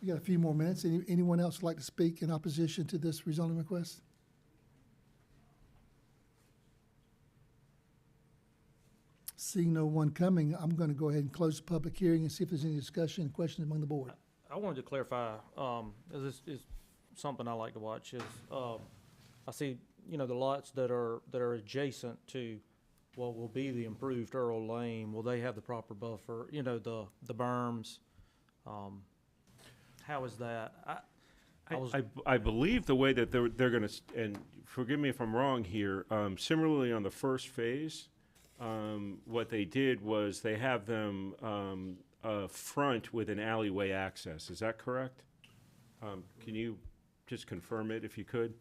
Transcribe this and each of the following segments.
We got a few more minutes. Any, anyone else like to speak in opposition to this rezoning request? Seeing no one coming, I'm going to go ahead and close the public hearing and see if there's any discussion, questions among the board. I wanted to clarify, um, as this is something I like to watch is, um, I see, you know, the lots that are, that are adjacent to what will be the improved Earl Lane, will they have the proper buffer, you know, the, the berms? Um, how is that? I, I I, was- I, I believe the way that they're, they're gonna, s- and forgive me if I'm wrong here, um, similarly on the first phase, um, what they did was they have them, um, uh, front with an alleyway access, is that correct? Um, can you just confirm it if you could?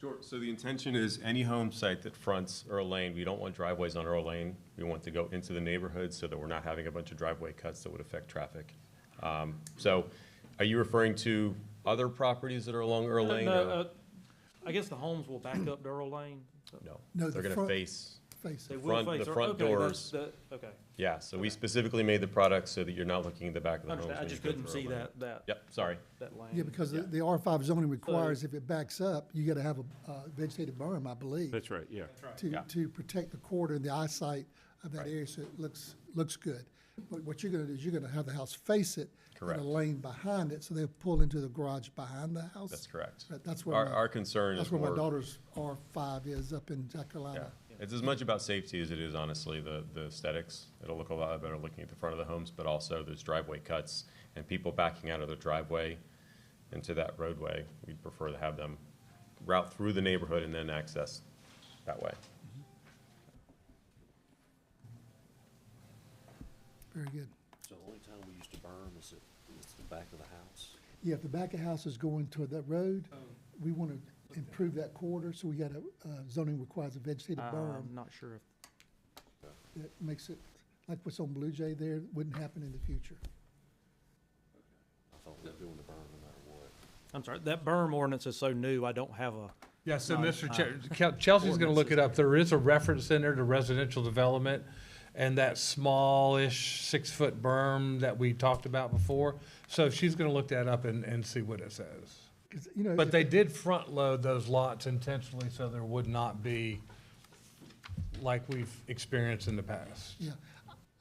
Sure, so the intention is any home site that fronts Earl Lane, we don't want driveways on Earl Lane. We want to go into the neighborhood so that we're not having a bunch of driveway cuts that would affect traffic. Um, So are you referring to other properties that are along Earl No, Lane? or- uh, I guess the homes will back up to Earl Lane? No, No, the they're going to front- face, Face They it. will front- the face Earl- front okay, that's doors. the- Okay, yeah, so we specifically made the product so that you're not looking at the back of I the homes. understand, I when you just go couldn't through see Earl Lane. that, that. Yep, sorry. That lane. Yeah, because the, the R five zoning requires, if it backs up, you got to have a uh, vegetated berm, I believe, That's right, yeah. to, yeah. to protect the corridor and the eyesight of that Right. area, so it looks, looks good. But what you're going to do is you're going to have the house face it. Correct. And a lane behind it, so they'll pull into the garage behind the house. That's correct. That- That's where Our, my- our concern is That's more. where my daughter's R five is, up in Jack Yeah, Carolina. it's as much about safety as it is honestly the, the aesthetics. It'll look a lot better looking at the front of the homes, but also there's driveway cuts and people backing out of their driveway into that roadway. We'd prefer to have them route through the neighborhood and then access that way. Very good. So the only time we used to burn is at, is the back of the house. Yeah, if the back of house is going toward that road, we want to improve that corridor, so we got a, uh, zoning requires a vegetated Um. berm I'm not sure if that makes it, like what's on Blue Jay there, wouldn't happen in the future. I thought we were doing the burn no matter what. I'm sorry, that berm ordinance is so new, I don't have a, Yeah, so Not- Mr. Che- Kel- Chelsea's gonna look it up. There is a reference in there to residential development and that smallish six-foot berm that we talked about before. So she's gonna look that up and, and see what it says. 'Cause, you know, But if- they did front-load those lots intentionally so there would not be like we've experienced in the past. Yeah,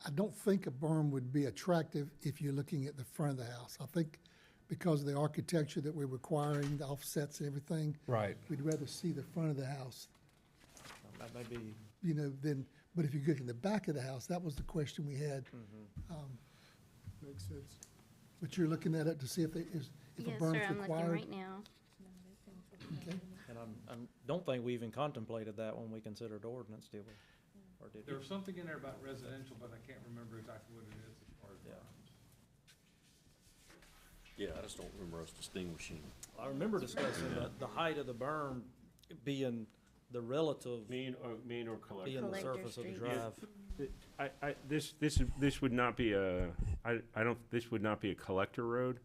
I don't think a berm would be attractive if you're looking at the front of the house. I think because of the architecture that we're requiring, the offsets and everything, Right. we'd rather see the front of the house, that may be. you know, than, but if you look in the back of the house, that was the question we had. Makes sense. But you're looking at it to see if it is, if a Yes, berm's sir, required? I'm looking right now. Okay. And I'm, I'm, don't think we even contemplated that when we considered ordinance, did we? Or did we? There was something in there about residential, but I can't remember exactly what it is as far as. Yeah. Yeah, I just don't remember us distinguishing. I remember discussing the, the height of the berm being the relative, Mean or, mean or collector? being the Collector surface of the street. drive. I, I, this, this, is- this would not be a, I, I don't, this would not be a collector road,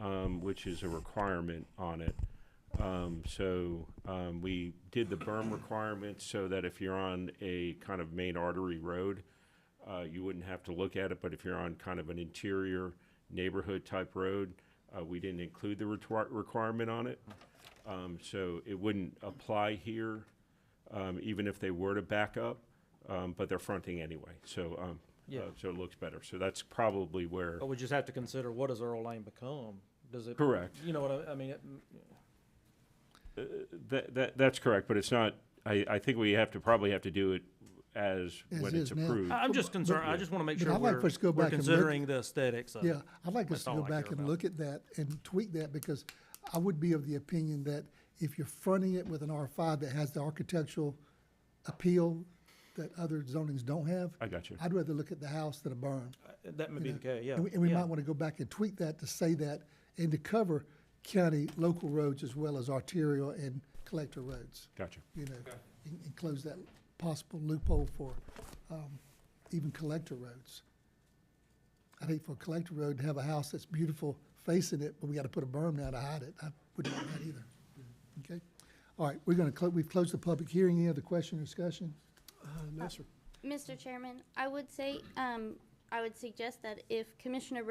um, which is a requirement on it. Um, so, um, we did the berm requirement so that if you're on a kind of main artery road, uh, you wouldn't have to look at it, but if you're on kind of an interior neighborhood type road, uh, we didn't include the retwi- requirement on it. Um, so it wouldn't apply here, um, even if they were to back up, um, but they're fronting anyway, so, um, Yeah. uh, so it looks better. So that's probably where, But we just have to consider what does Earl Lane become? Does it? correct. You know what I, I mean, it, That, that, that's correct, but it's not, I, I think we have to, probably have to do it as As when is it's now. approved. I- I'm just concerned, I just wanna make But sure I'd like we're, for us to go we're back and look- considering the aesthetics of it. Yeah, I'd like us That's to all go I care back and about. look at that and tweak that, because I would be of the opinion that if you're fronting it with an R five that has the architectural appeal that other zonings don't have. I got you. I'd rather look at the house than a barn. That may be the case, yeah. And we, and we yeah. might want to go back and tweak that to say that, and to cover county local roads as well as arterial and collector roads, Gotcha. you know, and, and close that possible loophole for, um, even collector roads. I think for a collector road to have a house that's beautiful facing it, but we got to put a berm down to hide it. I wouldn't want that either. Okay? All right, we're going to, close. we've closed the public hearing. Any other question or discussion? Mr. Chairman, I would say, um, I would suggest that if Commissioner